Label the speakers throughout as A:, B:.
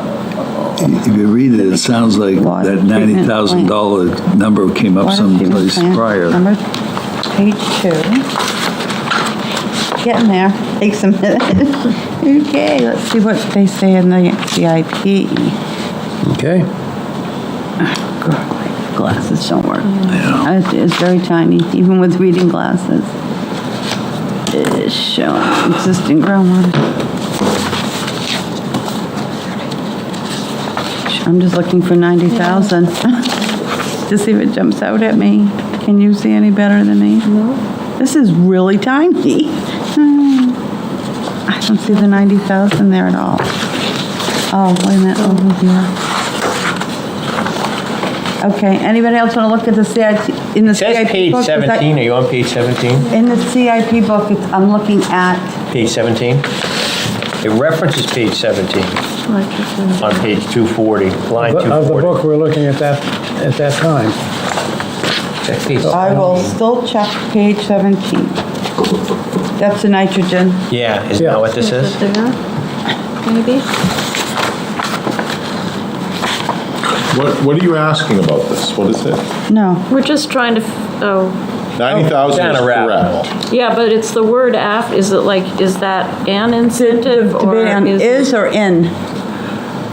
A: Um, If you read it, it sounds like
B: Water
A: that
B: treatment
A: ninety
B: plant.
A: thousand dollar number came up
B: Water treatment
A: someplace
B: plant,
A: prior.
B: Number, page two. Getting there, takes a minute. Okay, let's see what they say in the CIP.
C: Okay.
B: Glasses don't work. It's- It's very tiny, even with reading glasses. It is showing existing groundwater. I'm just looking for 90,000 to see if it jumps out at me. Can you see any better than me? No. This is really tiny. Hmm. I don't see the 90,000 there at all. Oh, wait a minute, over here. Okay, anybody else want to look at the CIP, in the
C: It says
B: CIP?
C: page
B: book? Is that-
C: 17, are you on page 17?
B: In the CIP book, it's- I'm looking at,
C: Page 17? It references page 17
B: Oh,
C: on page 240, line
D: Of the
C: 240.
D: book we're looking at that, at that time.
C: Check page
D: Oh,
B: I will
C: 17.
B: still check page 17. That's the nitrogen.
C: Yeah, isn't
D: Yeah.
C: that what this is?
E: Maybe?
F: What, what are you asking about this? What is it?
B: No,
E: We're just trying to, f- oh,
F: 90,000 is
C: Down a rabbit
F: correct.
E: yeah, but it's the word af, is it like, is that an incentive
B: to
E: or
B: be on
E: is,
B: is or in.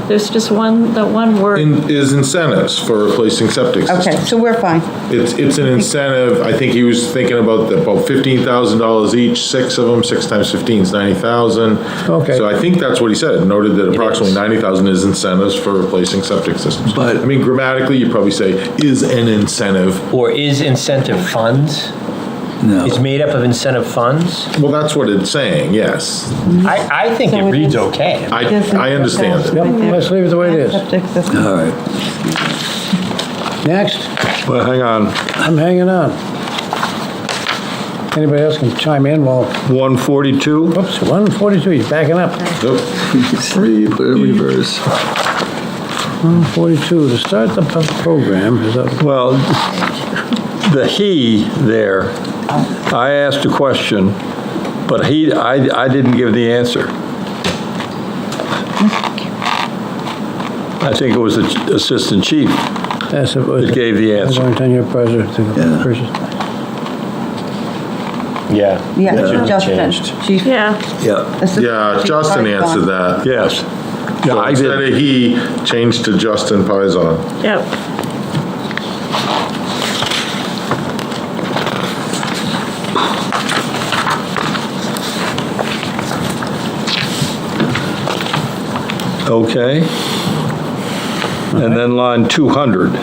E: there's just one, the one word?
F: In- Is incentives for replacing septic
B: Okay,
F: systems.
B: so we're fine.
F: It's, it's an incentive, I think he was thinking about the- about $15,000 each, six of them, six times 15 is 90,000.
D: Okay.
F: So I think that's what he said, noted that approximately 90,000 is incentives for replacing septic systems.
A: But-
F: I mean grammatically, you'd probably say is an incentive.
C: Or is incentive funds?
A: No.
C: It's made up of incentive funds?
F: Well, that's what it's saying, yes.
C: I, I think
B: So
C: it
B: it
C: reads
B: is-
C: okay.
F: I, I understand it.
D: Yep, let's leave it the way it is.
B: Septic system.
A: All right.
D: Next,
F: But hang on.
D: I'm hanging on. Anybody else can chime in while,
F: 142?
D: oops, 142, he's backing up.
A: Three, put it in reverse.
D: 142, to start the pu- program is up.
G: Well, the "he" there, I asked a question, but he, I, I didn't give the answer. I think it was the assistant chief.
D: Yes, it was.
G: It gave the answer.
D: Long tenure president.
A: Yeah.
C: Yeah.
B: Yeah,
C: That should be
B: Justin,
C: changed.
B: chief.
E: Yeah,
A: Yeah.
B: assistant
F: Yeah,
B: chief
F: Justin
B: Pizon.
F: answered that.
G: Yes. Yeah,
F: So
G: I
F: instead
G: did.
F: of he, changed to Justin Pizon.
E: yeah,
G: Okay. And then line 200.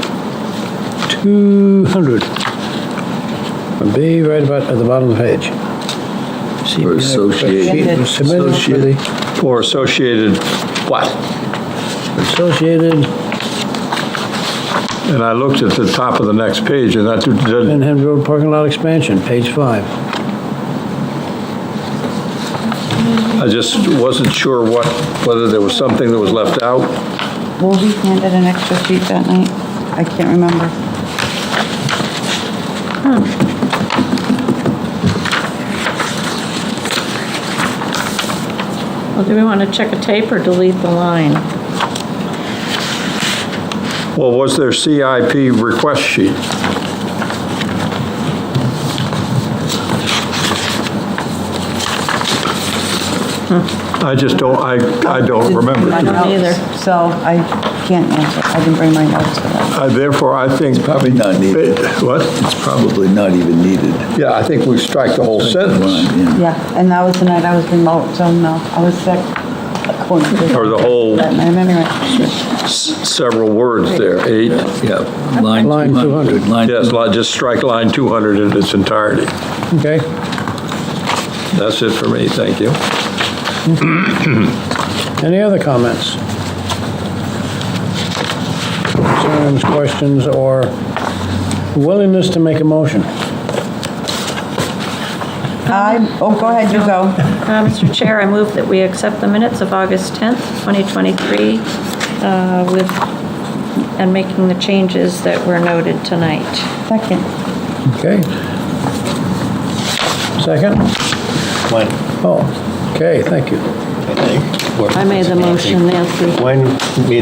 D: 200. It'll Be right about, at the bottom of the page.
A: Or associated.
D: Submitted for the
G: Or associated what?
D: Associated
G: And I looked at the top of the next page, and that didn't,
D: Benham Road parking lot expansion, page five.
G: I just wasn't sure what, whether there was something that was left out.
B: Were we handed an extra sheet that night? I can't remember.
E: well, do we want to check a tape or delete the line?
G: Well, was there CIP request sheet? I just don't, I, I don't
B: I
G: remember.
B: don't
E: either.
B: So I can't answer. I didn't bring my notes for that.
G: I- Uh, Therefore, I think,
A: Probably not needed.
G: what?
A: It's probably not even needed.
G: Yeah, I think we strike the whole sentence,
A: Yeah.
B: Yeah, and that was the night I was remote, so no, I was sick. according to-
G: or the whole
B: That night, anyway.
G: s- several words there, eight.
A: Yeah. Line
D: Line
A: 200. Line
G: Yes, li- just strike line 200 in its entirety.
D: Okay,
G: That's it for me, thank you.
D: any other comments? Concerns, questions, or willingness to make a motion?
B: I, oh, go ahead, you go.
E: Uh, Mr. Chair, I move that we accept the minutes of August 10th, 2023, uh, with, and making the changes that were noted tonight.
B: Second.
D: Okay. Second?
C: When,
D: Oh, okay, thank you.
C: I think.
E: I made the motion, Nancy.
C: When we